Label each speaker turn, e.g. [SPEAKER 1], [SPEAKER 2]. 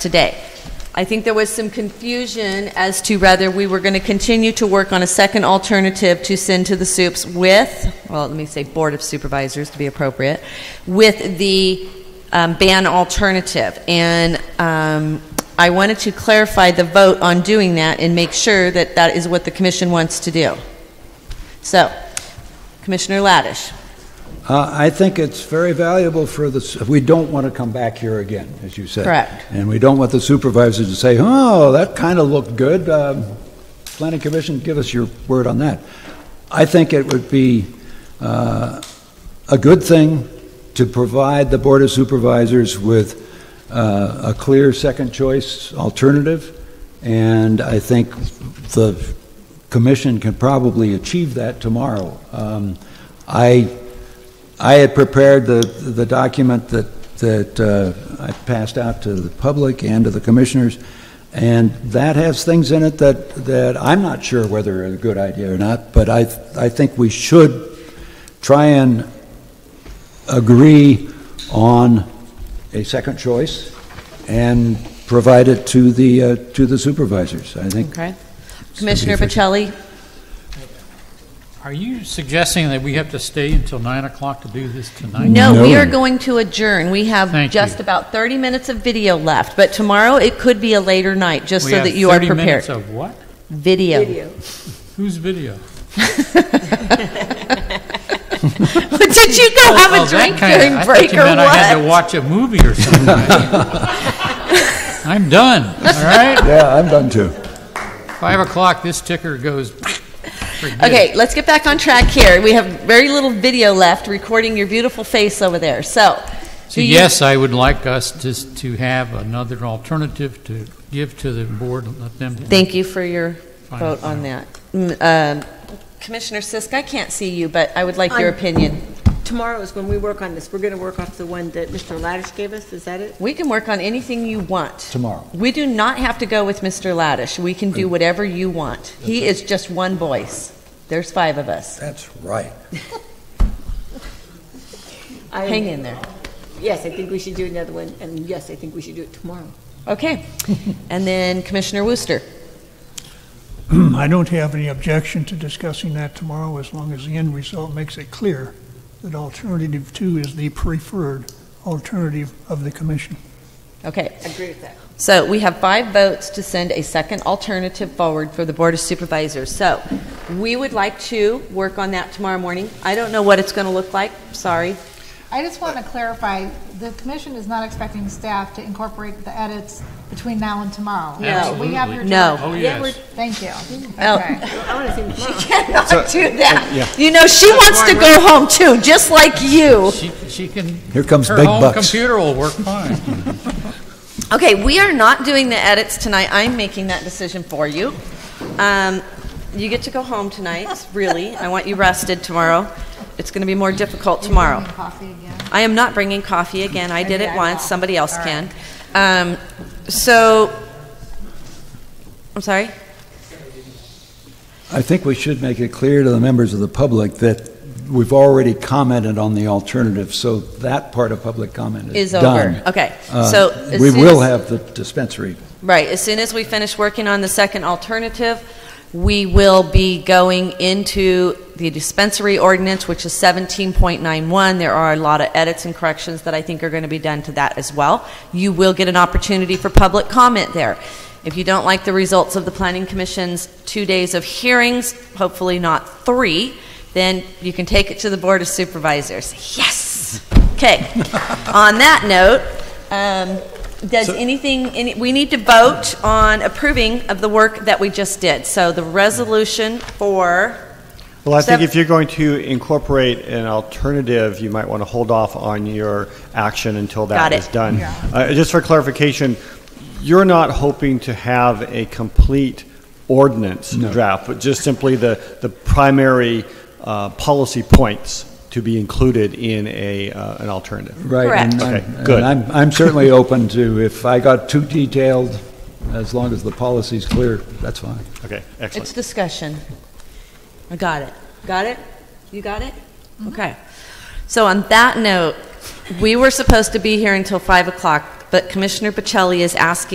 [SPEAKER 1] today. I think there was some confusion as to whether we were going to continue to work on a second alternative to send to the soups with, well, let me say Board of Supervisors to be appropriate, with the um, ban alternative. And um, I wanted to clarify the vote on doing that and make sure that that is what the commission wants to do. So, Commissioner Laddish.
[SPEAKER 2] Uh, I think it's very valuable for the, su- we don't want to come back here again, as you said.
[SPEAKER 1] Correct.
[SPEAKER 2] And we don't want the supervisors to say, oh, that kind of looked good. Um, Planning Commission, give us your word on that. I think it would be uh, a good thing to provide the Board of Supervisors with uh, a clear second choice alternative, and I think the commission can probably achieve that tomorrow. Um, I I had prepared the, the document that, that uh, I passed out to the public and to the commissioners, and that has things in it that, that I'm not sure whether are a good idea or not, but I, I think we should try and agree on a second choice and provide it to the, uh, to the supervisors. I think
[SPEAKER 1] Okay. Commissioner
[SPEAKER 2] efficient.
[SPEAKER 1] Pacelli,
[SPEAKER 3] Are you suggesting that we have to stay until 9 o'clock to do this tonight?
[SPEAKER 1] no, we
[SPEAKER 2] No.
[SPEAKER 1] are going to adjourn. We have
[SPEAKER 3] Thank
[SPEAKER 1] just
[SPEAKER 3] you.
[SPEAKER 1] about 30 minutes of video left, but tomorrow it could be a later night, just
[SPEAKER 3] We
[SPEAKER 1] so
[SPEAKER 3] have
[SPEAKER 1] that you are
[SPEAKER 3] 30 minutes
[SPEAKER 1] prepared.
[SPEAKER 3] of what?
[SPEAKER 1] Video.
[SPEAKER 3] Whose video?
[SPEAKER 1] Did you go have
[SPEAKER 3] Oh,
[SPEAKER 1] a
[SPEAKER 3] that
[SPEAKER 1] drink
[SPEAKER 3] kinda-
[SPEAKER 1] during
[SPEAKER 3] I thought
[SPEAKER 1] break
[SPEAKER 3] you meant I had
[SPEAKER 1] or
[SPEAKER 3] to
[SPEAKER 1] what?
[SPEAKER 3] watch a movie or something. I'm done, all right?
[SPEAKER 2] Yeah, I'm done too.
[SPEAKER 3] 5 o'clock, this ticker goes, forget it.
[SPEAKER 1] Okay, let's get back on track here. We have very little video left, recording your beautiful face over there. So,
[SPEAKER 3] So
[SPEAKER 1] do you-
[SPEAKER 3] Yes, I would like us to, to have another alternative to give to the board, and let them.
[SPEAKER 1] Thank you for your
[SPEAKER 3] Fine,
[SPEAKER 1] vote on that. Mm, um, Commissioner Sisk, I can't see you, but I would like your
[SPEAKER 4] I'm-
[SPEAKER 1] opinion.
[SPEAKER 4] Tomorrow is when we work on this. We're going to work off the one that Mr. Laddish gave us, is that it?
[SPEAKER 1] We can work on anything you want.
[SPEAKER 2] Tomorrow.
[SPEAKER 1] We do not have to go with Mr. Laddish. We can do whatever you want. He is just one voice. There's five of us.
[SPEAKER 2] That's right.
[SPEAKER 4] I-
[SPEAKER 1] Hang in there.
[SPEAKER 4] Yes, I think we should do another one, and yes, I think we should do it tomorrow.
[SPEAKER 1] Okay. And then Commissioner Wooster.
[SPEAKER 5] I don't have any objection to discussing that tomorrow as long as the end result makes it clear that alternative two is the preferred alternative of the commission.
[SPEAKER 1] Okay.
[SPEAKER 4] Agree with that.
[SPEAKER 1] So we have five votes to send a second alternative forward for the Board of Supervisors. So we would like to work on that tomorrow morning. I don't know what it's going to look like. Sorry.
[SPEAKER 6] I just want to clarify, the commission is not expecting staff to incorporate the edits between now and tomorrow.
[SPEAKER 1] No.
[SPEAKER 6] We have your.
[SPEAKER 1] No.
[SPEAKER 3] Oh,
[SPEAKER 6] directive.
[SPEAKER 3] yes.
[SPEAKER 6] Thank you.
[SPEAKER 1] Oh.
[SPEAKER 6] Okay.
[SPEAKER 4] I want to see tomorrow.
[SPEAKER 1] cannot do that. You know, she wants to go home too, just like you.
[SPEAKER 3] She, she can.
[SPEAKER 2] Here comes
[SPEAKER 3] her
[SPEAKER 2] big
[SPEAKER 3] home
[SPEAKER 2] bucks.
[SPEAKER 3] computer will work fine.
[SPEAKER 1] Okay, we are not doing the edits tonight. I'm making that decision for you. Um, you get to go home tonight, really. I want you rested tomorrow. It's going to be more difficult tomorrow.
[SPEAKER 6] Coffee again.
[SPEAKER 1] I am not bringing coffee again. I did
[SPEAKER 6] Maybe
[SPEAKER 1] it
[SPEAKER 6] I
[SPEAKER 1] once.
[SPEAKER 6] will.
[SPEAKER 1] Somebody else
[SPEAKER 6] All
[SPEAKER 1] can.
[SPEAKER 6] right.
[SPEAKER 1] Um, so, I'm sorry?
[SPEAKER 2] I think we should make it clear to the members of the public that we've already commented on the alternative, so that part of public comment is
[SPEAKER 1] Is over.
[SPEAKER 2] done.
[SPEAKER 1] Okay.
[SPEAKER 2] Uh,
[SPEAKER 1] So, as
[SPEAKER 2] We
[SPEAKER 1] soon
[SPEAKER 2] will
[SPEAKER 1] as-
[SPEAKER 2] have the dispensary.
[SPEAKER 1] Right, as soon as we finish working on the second alternative, we will be going into the dispensary ordinance, which is 17.91. There are a lot of edits and corrections that I think are going to be done to that as well. You will get an opportunity for public comment there. If you don't like the results of the Planning Commission's two days of hearings, hopefully not three, then you can take it to the Board of Supervisors. Yes! Okay. On that note, um, does anything, any, we need to vote on approving of the work that we just did. So the resolution for,
[SPEAKER 7] Well, I think
[SPEAKER 1] Sev-
[SPEAKER 7] if you're going to incorporate an alternative, you might want to hold off on your action until
[SPEAKER 1] Got
[SPEAKER 7] that
[SPEAKER 1] it.
[SPEAKER 7] is done. Uh, Just for clarification, you're not hoping to have a complete ordinance draft, but just simply the, the primary uh, policy points to be included in a, uh, an alternative.
[SPEAKER 2] Right.
[SPEAKER 1] Correct.
[SPEAKER 2] and I'm-
[SPEAKER 7] Okay, good.
[SPEAKER 2] And I'm, I'm certainly open to, if I got too detailed, as long as the policy's clear, that's fine.
[SPEAKER 7] Okay,
[SPEAKER 1] it's
[SPEAKER 7] excellent.
[SPEAKER 1] discussion. I got it. Got it? You got it? Okay. So on that note, we were supposed to be here until 5 o'clock, but Commissioner Pacelli is asking